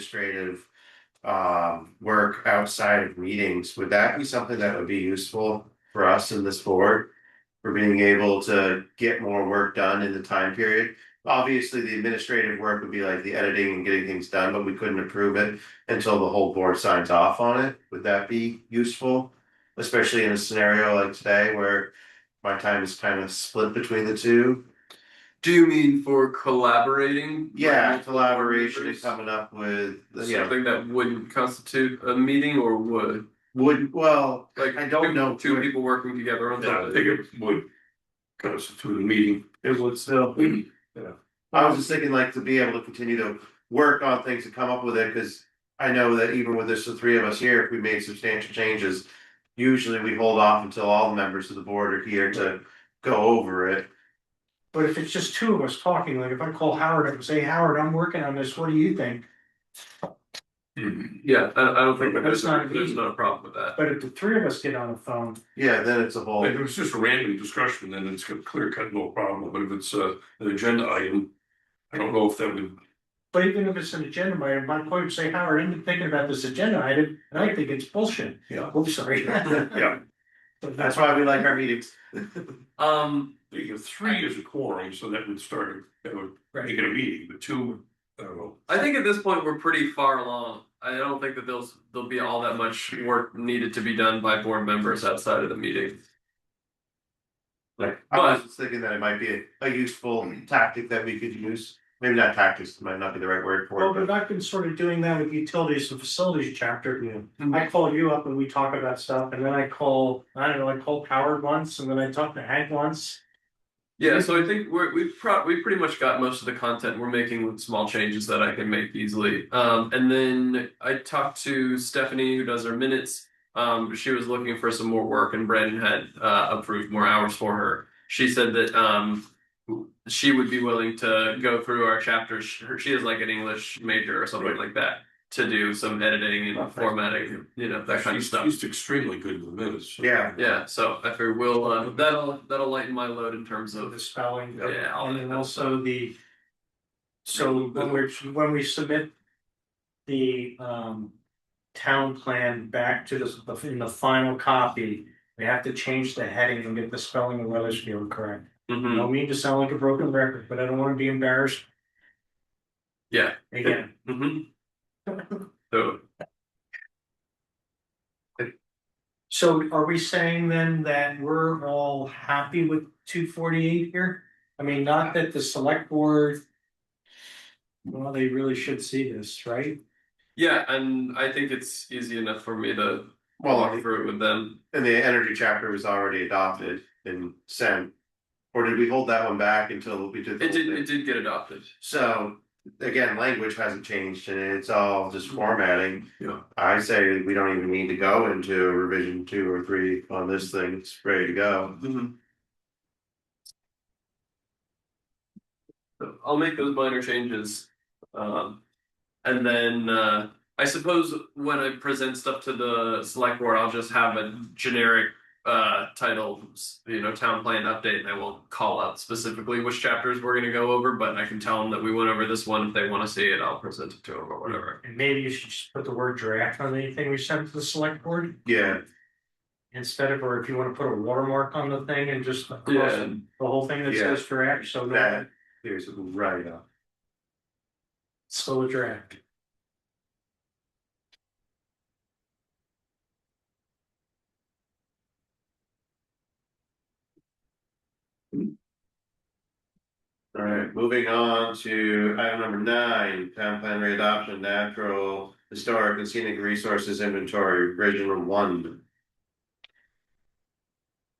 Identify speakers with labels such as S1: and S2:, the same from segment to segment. S1: administrative um work outside of meetings, would that be something that would be useful for us in this board? For being able to get more work done in the time period? Obviously, the administrative work would be like the editing and getting things done, but we couldn't approve it until the whole board signs off on it. Would that be useful? Especially in a scenario like today where my time is kind of split between the two.
S2: Do you mean for collaborating?
S1: Yeah,
S2: Like,
S1: collaboration and
S2: members?
S1: coming up with, you know,
S2: Something that wouldn't constitute a meeting or would?
S1: would, well,
S2: Like
S1: I don't
S2: two-
S1: know.
S2: Two people working together on
S3: Yeah, I
S2: something.
S3: think it would constitute a meeting.
S1: It would still.
S3: Yeah.
S1: I was just thinking like to be able to continue to work on things and come up with it, cause I know that even with this, the three of us here, if we made substantial changes. Usually we hold off until all the members of the board are here to go over it.
S4: But if it's just two of us talking, like if I call Howard up and say, Howard, I'm working on this, what do you think?
S2: Yeah, I, I don't think that
S4: That's
S2: there's,
S4: not a
S2: there's
S4: meeting.
S2: not a problem with that.
S4: But if the three of us get on the phone,
S1: Yeah, then it's a whole,
S3: If it was just a random discussion, then it's got clear cut, no problem, but if it's uh an agenda item. I don't know if that would,
S4: but even if it's an agenda item, my point would say, Howard, I've been thinking about this agenda item, and I think it's bullshit.
S3: Yeah.
S4: Oh, sorry.
S3: yeah,
S1: that's why we like our meetings.
S2: Um,
S3: you have three is a quorum, so that would start, that would make
S4: Right.
S3: it a meeting, but two, I don't know.
S2: I think at this point, we're pretty far along. I don't think that there's, there'll be all that much work needed to be done by board members outside of the meeting.
S1: Like, I was just thinking that it might be a- a useful tactic that we could use, maybe not tactics, might not be the right word
S4: Well,
S1: for it,
S4: but
S1: but.
S4: I've been sort of doing that with utilities and facilities chapter.
S1: Yeah.
S4: I call you up and we talk about stuff, and then I call, I don't know, I called Howard once, and then I talked to Hank once.
S2: Yeah,
S3: Mm-hmm.
S2: so I think we're, we've pro- we pretty much got most of the content we're making with small changes that I can make easily. Um, and then I talked to Stephanie who does our minutes. Um, she was looking for some more work and Brandon had uh, approved more hours for her. She said that um, she would be willing to go through our chapters. She she is like an English major or something like that to do some editing and
S1: Perfect.
S2: formatting, you know, that kind of
S3: She's-
S2: stuff.
S3: She's extremely good with minutes.
S1: Yeah.
S2: Yeah, so I figure we'll uh, that'll that'll lighten my load in terms
S4: So the
S2: of
S4: spelling.
S2: yeah, all
S4: And
S2: that
S4: then
S2: kind of stuff.
S4: also the. So when we're, when we submit. The um. Town plan back to the, in the final copy, we have to change the heading and get the spelling of Weathersfield correct. I
S3: Mm-hmm.
S2: Mhm.
S4: don't mean to sound like a broken record, but I don't wanna be embarrassed.
S2: Yeah.
S4: Again,
S2: Mm-hmm. So
S4: so are we saying then that we're all happy with two forty eight here? I mean, not that the select board. Well, they really should see this, right?
S2: yeah, and I think it's easy enough for me to
S1: Well, I
S2: walk
S1: think-
S2: through it with them.
S1: and the energy chapter was already adopted and sent. Or did we hold that one back until we did? the
S2: It did
S1: whole
S2: it
S1: thing?
S2: did get adopted.
S1: So, again, language hasn't changed and it's all
S2: Mm-hmm.
S1: just formatting.
S3: Yeah.
S1: I say we don't even need to go into revision two or three on this thing, it's ready to go.
S2: Mm-hmm. So I'll make those minor changes. Um, and then uh, I suppose when I present stuff to the select board, I'll just have a generic uh, title, you know, town plan update, and I won't call out specifically which chapters we're going to go over, but I can tell them that we went over this one. If they want to see it, I'll present it to them or whatever.
S4: And maybe you should just put the word draft on anything we send to the select board
S1: Yeah,
S4: instead of, or if you wanna put a watermark on the thing and just across
S2: Yeah.
S4: the whole thing that
S1: Yeah.
S4: says draft, so no,
S1: that, there's a write up.
S4: slow draft.
S1: Alright, moving on to item number nine, town plan readoption, natural, historic and scenic resources inventory, original one.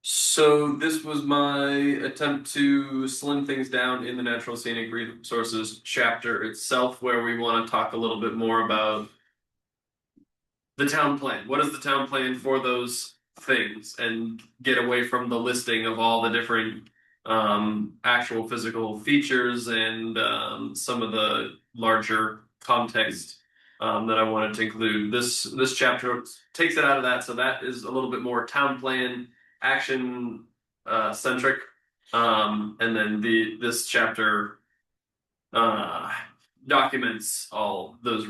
S2: So this was my attempt to slim things down in the natural scenic resources chapter itself, where we want to talk a little bit more about the town plan. What is the town plan for those things, and get away from the listing of all the different um, actual physical features and um, some of the larger context um, that I wanted to include. This this chapter takes it out of that, so that is a little bit more town plan action uh, centric, um, and then the this chapter uh, documents all those